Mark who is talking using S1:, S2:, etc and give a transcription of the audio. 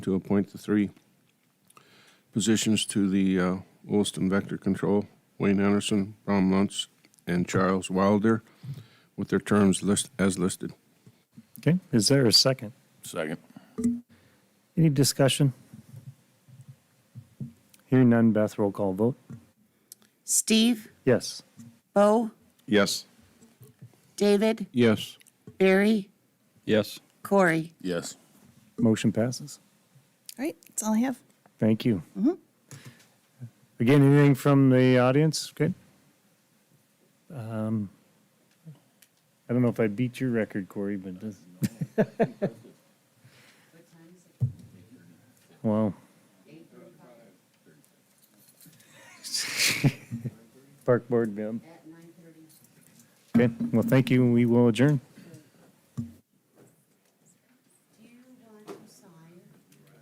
S1: to appoint the three positions to the uh, Williston Vector Control, Wayne Anderson, Brom Luntz, and Charles Wilder, with their terms list, as listed.
S2: Okay, is there a second?
S3: Second.
S2: Any discussion? Hearing none, Beth, roll call vote.
S4: Steve,
S2: Yes.
S4: Bo,
S1: Yes.
S4: David,
S1: Yes.
S4: Barry,
S3: Yes.
S4: Corey.
S3: Yes.
S2: Motion passes.
S5: All right, that's all I have.
S2: Thank you. Again, anything from the audience? Good. Um, I don't know if I beat your record, Corey, but this. Wow. Park Board, yeah. Okay, well, thank you, and we will adjourn.